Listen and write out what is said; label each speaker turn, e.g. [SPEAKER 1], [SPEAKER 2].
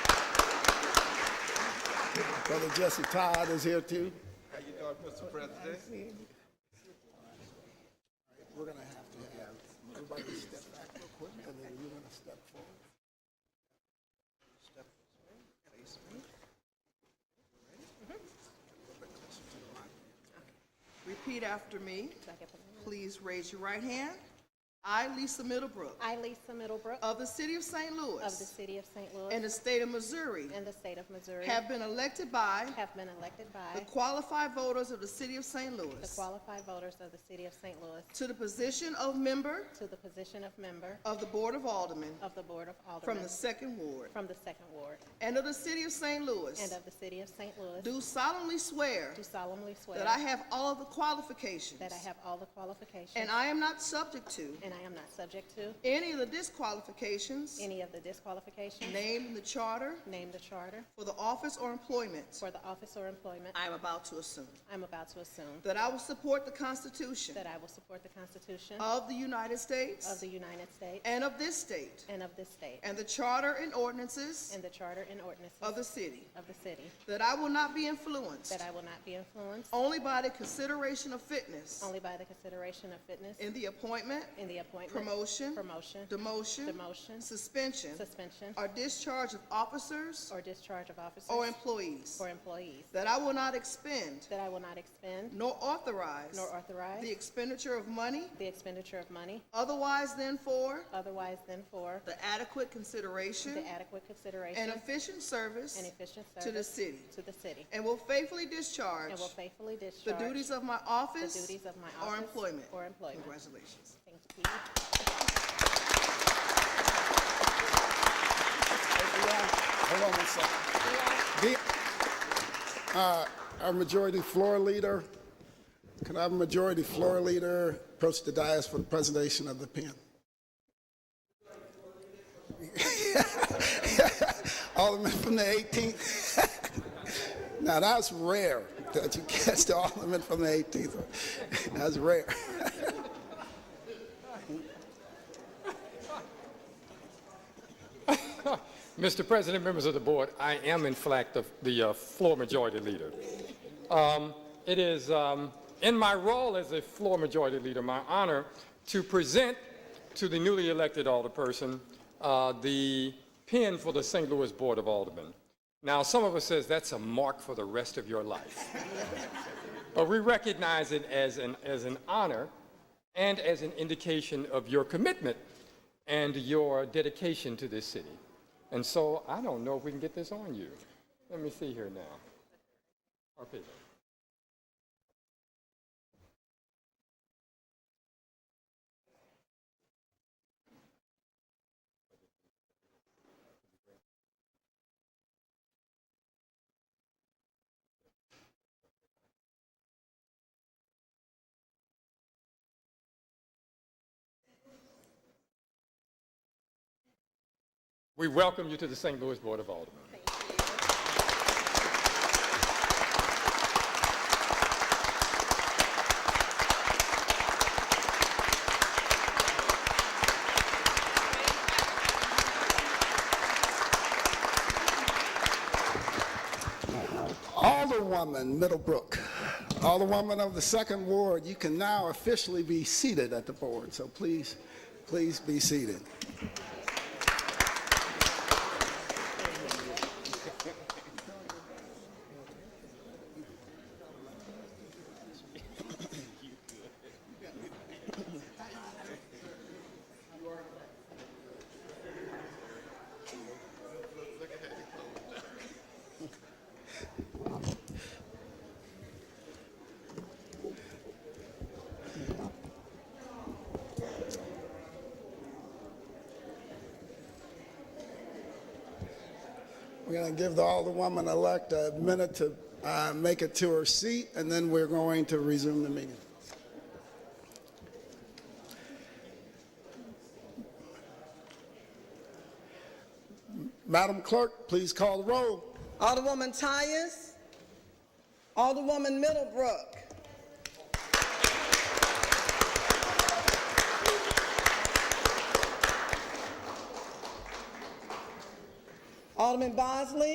[SPEAKER 1] Brother Jesse Todd is here too.
[SPEAKER 2] How you doing, Mr. President?
[SPEAKER 1] We're gonna have to have everybody step back real quick, and then you're gonna step forward. Step this way, face me. A little bit closer to the mic.
[SPEAKER 3] Repeat after me. Please raise your right hand. I, Lisa Middlebrook,
[SPEAKER 4] I, Lisa Middlebrook,
[SPEAKER 3] of the city of St.
[SPEAKER 4] of the
[SPEAKER 3] Louis
[SPEAKER 4] city of St.
[SPEAKER 3] and
[SPEAKER 4] Louis
[SPEAKER 3] the state of Missouri,
[SPEAKER 4] and the state of Missouri,
[SPEAKER 3] have been elected by
[SPEAKER 4] have been elected
[SPEAKER 3] the
[SPEAKER 4] by
[SPEAKER 3] qualified voters of the city of St.
[SPEAKER 4] the
[SPEAKER 3] Louis
[SPEAKER 4] qualified voters of the city of St. Louis
[SPEAKER 3] to the position of member
[SPEAKER 4] to the position of member
[SPEAKER 3] of the Board of Aldermen
[SPEAKER 4] of the Board of
[SPEAKER 3] from
[SPEAKER 4] Aldermen
[SPEAKER 3] the Second Ward
[SPEAKER 4] from the Second Ward
[SPEAKER 3] and of the city of St.
[SPEAKER 4] and
[SPEAKER 3] Louis,
[SPEAKER 4] of the city of St. Louis, do
[SPEAKER 3] do solemnly swear
[SPEAKER 4] solemnly swear
[SPEAKER 3] that I have all of the qualifications
[SPEAKER 4] that I have all the qualifications
[SPEAKER 3] and I am not subject to
[SPEAKER 4] and I am not subject to
[SPEAKER 3] any of the disqualifications
[SPEAKER 4] any of the disqualifications
[SPEAKER 3] named in the charter
[SPEAKER 4] named the charter
[SPEAKER 3] For the office or employment
[SPEAKER 4] for the office or employment
[SPEAKER 3] I am about to assume.
[SPEAKER 4] I'm about to assume,
[SPEAKER 3] That I will support the Constitution
[SPEAKER 4] that I will support the Constitution
[SPEAKER 3] of the United
[SPEAKER 4] of
[SPEAKER 3] States
[SPEAKER 4] the United States
[SPEAKER 3] and of this state,
[SPEAKER 4] and of this state,
[SPEAKER 3] and the charter and ordinances
[SPEAKER 4] and the charter and ordinances
[SPEAKER 3] of the city.
[SPEAKER 4] of the city,
[SPEAKER 3] That I will not be influenced
[SPEAKER 4] that I will not be influenced
[SPEAKER 3] only by the consideration of fitness
[SPEAKER 4] only by the consideration of fitness
[SPEAKER 3] in the appointment,
[SPEAKER 4] in the appointment,
[SPEAKER 3] promotion,
[SPEAKER 4] promotion,
[SPEAKER 3] demotion,
[SPEAKER 4] demotion,
[SPEAKER 3] suspension,
[SPEAKER 4] suspension,
[SPEAKER 3] or discharge of officers
[SPEAKER 4] or discharge of officers
[SPEAKER 3] or employees.
[SPEAKER 4] or employees,
[SPEAKER 3] That I will not expend
[SPEAKER 4] that I will not expend
[SPEAKER 3] nor authorize
[SPEAKER 4] nor authorize
[SPEAKER 3] the expenditure of money
[SPEAKER 4] the expenditure of money
[SPEAKER 3] otherwise than for
[SPEAKER 4] otherwise than for
[SPEAKER 3] The adequate consideration
[SPEAKER 4] the adequate consideration
[SPEAKER 1] And
[SPEAKER 3] and efficient service
[SPEAKER 4] and efficient
[SPEAKER 3] to the
[SPEAKER 4] service
[SPEAKER 3] city.
[SPEAKER 4] to the city,
[SPEAKER 3] And will faithfully discharge
[SPEAKER 4] and will faithfully
[SPEAKER 1] The
[SPEAKER 4] discharge
[SPEAKER 1] duties of my
[SPEAKER 4] the
[SPEAKER 1] office
[SPEAKER 4] duties of my
[SPEAKER 1] or
[SPEAKER 4] office
[SPEAKER 1] employment.
[SPEAKER 4] or employment.
[SPEAKER 1] Congratulations.
[SPEAKER 4] Thank you.
[SPEAKER 1] Hold on one second. The- uh, Our majority floor leader, can I have a majority floor leader approach the dais for the presentation of the pen? Alderman from the 18th. Now, that's rare that you catch the alderman from the 18th. That's rare.
[SPEAKER 5] Mr. President, members of the board, I am in fact the, the uh, floor majority leader. Um, It is um, in my role as a floor majority leader, my honor to present to the newly elected alderperson uh, the pin for the St. Louis Board of Aldermen. Now, some of us says that's a mark for the rest of your life. But we recognize it as an, as an honor and as an indication of your commitment and your dedication to this city. And so I don't know if we can get this on you. Let me see here now. Okay. We welcome you to the St. Louis Board of Aldermen.
[SPEAKER 1] Alderwoman Middlebrook, Alderwoman of the Second Ward, you can now officially be seated at the board, so please, please be seated. We're going to give the Alderwoman-elect a minute to uh, make it to her seat, and then we're going to resume the meeting. Madam Clerk, please call the roll.
[SPEAKER 6] Alderwoman Tyers. Alderwoman Middlebrook. Alderman Bosley.